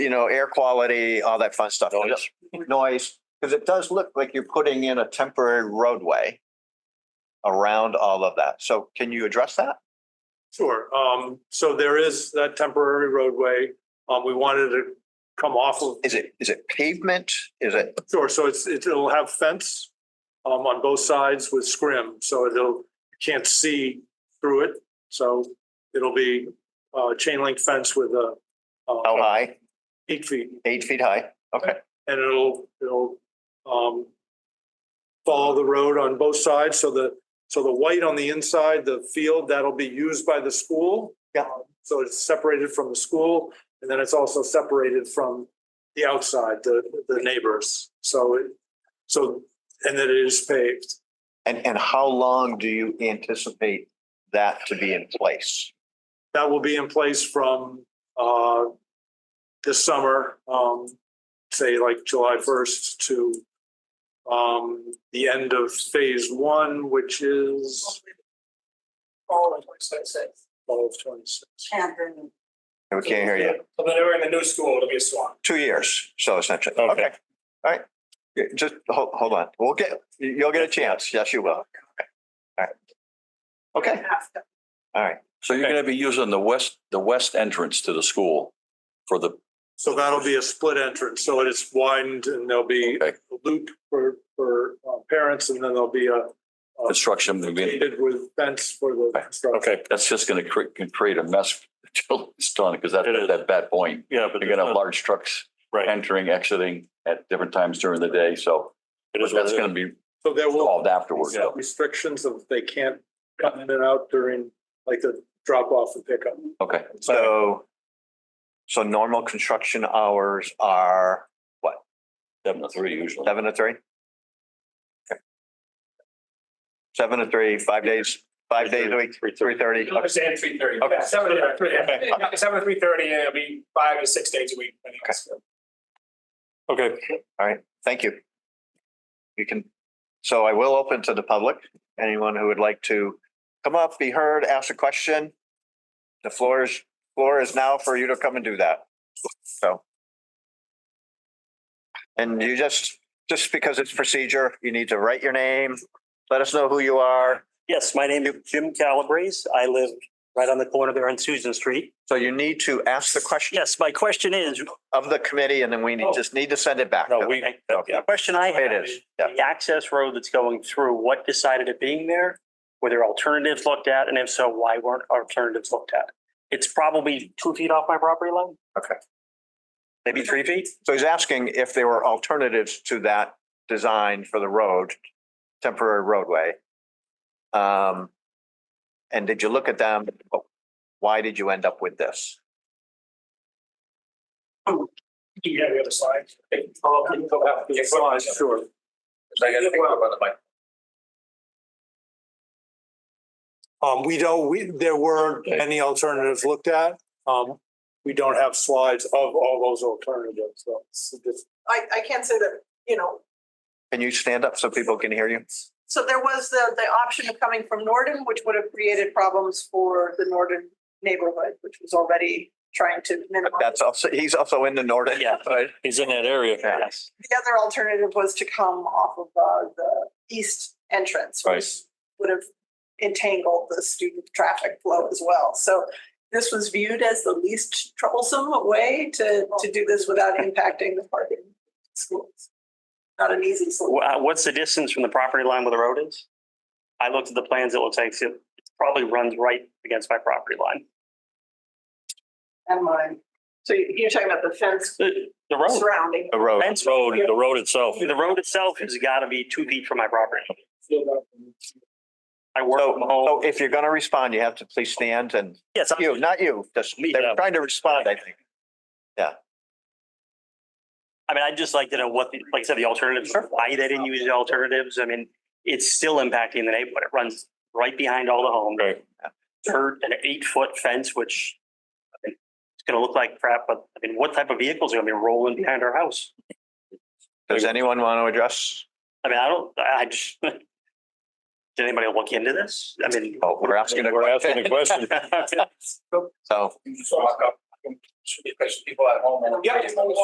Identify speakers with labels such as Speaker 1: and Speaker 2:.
Speaker 1: you know, air quality, all that fun stuff.
Speaker 2: Noise.
Speaker 1: Noise, because it does look like you're putting in a temporary roadway around all of that. So can you address that?
Speaker 2: Sure. Um, so there is that temporary roadway. Um, we wanted to come off of,
Speaker 1: Is it, is it pavement? Is it,
Speaker 2: sure, so it's, it- it'll have fence um, on both sides with scrim, so it'll, you can't see through it. So it'll be uh chain link fence with a uh,
Speaker 1: how high?
Speaker 2: eight feet
Speaker 1: Eight feet high? Okay.
Speaker 2: and it'll, it'll um follow the road on both sides, so the, so the white on the inside, the field, that'll be used by the school. Um,
Speaker 1: Yeah.
Speaker 2: So it's separated from the school, and then it's also separated from the outside, the, the neighbors, so it, so, and then it is paved.
Speaker 1: And, and how long do you anticipate that to be in place?
Speaker 2: That will be in place from uh this summer, um, say like July first to um the end of phase one, which is
Speaker 3: all of twenty twenty-six.
Speaker 2: fall of twenty-six.
Speaker 3: Can't hear me.
Speaker 1: We can't hear you.
Speaker 3: So then we're in the new school, it'll be a swamp.
Speaker 1: Two years, so essentially. Okay. All right. Yeah, Just hold, hold on. We'll get, you'll get a chance. Yes, you will. Okay. All right. Okay. All right.
Speaker 4: So you're
Speaker 2: Okay.
Speaker 4: gonna be using the west, the west entrance to the school for the,
Speaker 2: So that'll be a split entrance, so it is widened and there'll be
Speaker 4: Okay.
Speaker 2: a loop for for uh, parents and then there'll be a a
Speaker 4: Construction will be-
Speaker 2: gated With fence for the. construction.
Speaker 5: Okay,
Speaker 4: that's just gonna cre- can create a mess till it's done, because that's
Speaker 5: It is.
Speaker 4: that bad point.
Speaker 5: yeah, but
Speaker 4: You're gonna have
Speaker 5: it's not-
Speaker 4: large trucks
Speaker 5: right.
Speaker 4: entering, exiting at different times during the day, so
Speaker 5: It is what
Speaker 4: that's
Speaker 5: it is.
Speaker 4: gonna be
Speaker 2: So there will.
Speaker 4: solved afterwards.
Speaker 5: Yeah.
Speaker 2: restrictions of they can't come in and out during like the drop off and pickup.
Speaker 4: Okay,
Speaker 1: So, so normal construction hours are
Speaker 4: seven to three usually.
Speaker 1: seven to three? Okay. Seven to three, five days, five days a week, three thirty.
Speaker 3: It was at three thirty.
Speaker 1: Okay.
Speaker 3: Seven to three,
Speaker 1: Okay.
Speaker 3: yeah. seven to three thirty, and it'll be five to six days a week. depending on
Speaker 1: Okay.
Speaker 3: school.
Speaker 5: Okay,
Speaker 1: Thank you. You can, so I will open to the public, anyone who would like to come up, be heard, ask a question. The floor is, floor is now for you to come and do that, so. And you just, just because it's procedure, you need to write your name, let us know who you are.
Speaker 6: Yes, my name is Jim Calabrese. I live right on the corner there on Susan Street.
Speaker 1: So you need to ask the question
Speaker 6: Yes, my question is,
Speaker 1: of the committee and then we need, just need to send it back.
Speaker 5: Oh. no, we,
Speaker 1: Okay.
Speaker 6: the question I have.
Speaker 1: It is, yeah.
Speaker 6: The access road that's going through, what decided it being there? Were there alternatives looked at? And if so, why weren't alternatives looked at? It's probably two feet off my property line.
Speaker 1: Okay.
Speaker 6: Maybe three feet?
Speaker 1: So he's asking if there were alternatives to that design for the road, temporary roadway. Um, and did you look at them? Why did you end up with this?
Speaker 3: Do you have the other slide?
Speaker 2: Oh, we can go back to the slide, Sure. Um, we don't, we, there weren't any alternatives looked at. Um, we don't have slides of all those alternatives, so. it's just-
Speaker 7: I, I can't say that, you know,
Speaker 1: Can you stand up so people can hear you?
Speaker 7: so there was the, the option of coming from Norden, which would have created problems for the Norden neighborhood, which was already trying to minimize.
Speaker 1: That's also, he's also in the northern.
Speaker 6: Yeah.
Speaker 1: Right.
Speaker 5: he's in that area.
Speaker 1: Yeah.
Speaker 6: Yes.
Speaker 7: The other alternative was to come off of uh, the east entrance,
Speaker 4: Right.
Speaker 7: which would have entangled the student traffic flow as well. So this was viewed as the least troublesome way to, to do this without impacting the parking schools. Not an easy solution.
Speaker 6: Wha- What's the distance from the property line where the road is? I looked at the plans, it looks like it probably runs right against my property line.
Speaker 7: And mine. So you- you're talking about the fence
Speaker 6: The the road,
Speaker 7: surrounding.
Speaker 1: The road.
Speaker 6: fence road,
Speaker 5: Road, the road itself.
Speaker 6: the road itself has got to be two feet from my property. I work
Speaker 1: So,
Speaker 6: from home.
Speaker 1: so if you're going to respond, you have to please stand and
Speaker 6: Yes, I'm-
Speaker 1: you, not you, just,
Speaker 6: Me,
Speaker 1: they're
Speaker 6: yeah.
Speaker 1: trying to respond, I think.
Speaker 6: I mean, I'd just like to know what, the- like I said, the alternatives, why they didn't use the alternatives. I mean, it's still impacting the neighborhood. It runs right behind all the homes.
Speaker 5: Right.
Speaker 6: Hurt an eight foot fence, which I mean, it's going to look like crap, but I mean, what type of vehicles are going to be rolling behind our house?
Speaker 1: Does anyone want to address?
Speaker 6: I mean, I don't, I just, did anybody look into this? I mean.
Speaker 1: Oh, we're asking a
Speaker 5: We're asking a
Speaker 1: question.
Speaker 5: question.
Speaker 1: So,
Speaker 3: Walk up.
Speaker 2: should be efficient people at home. Yeah.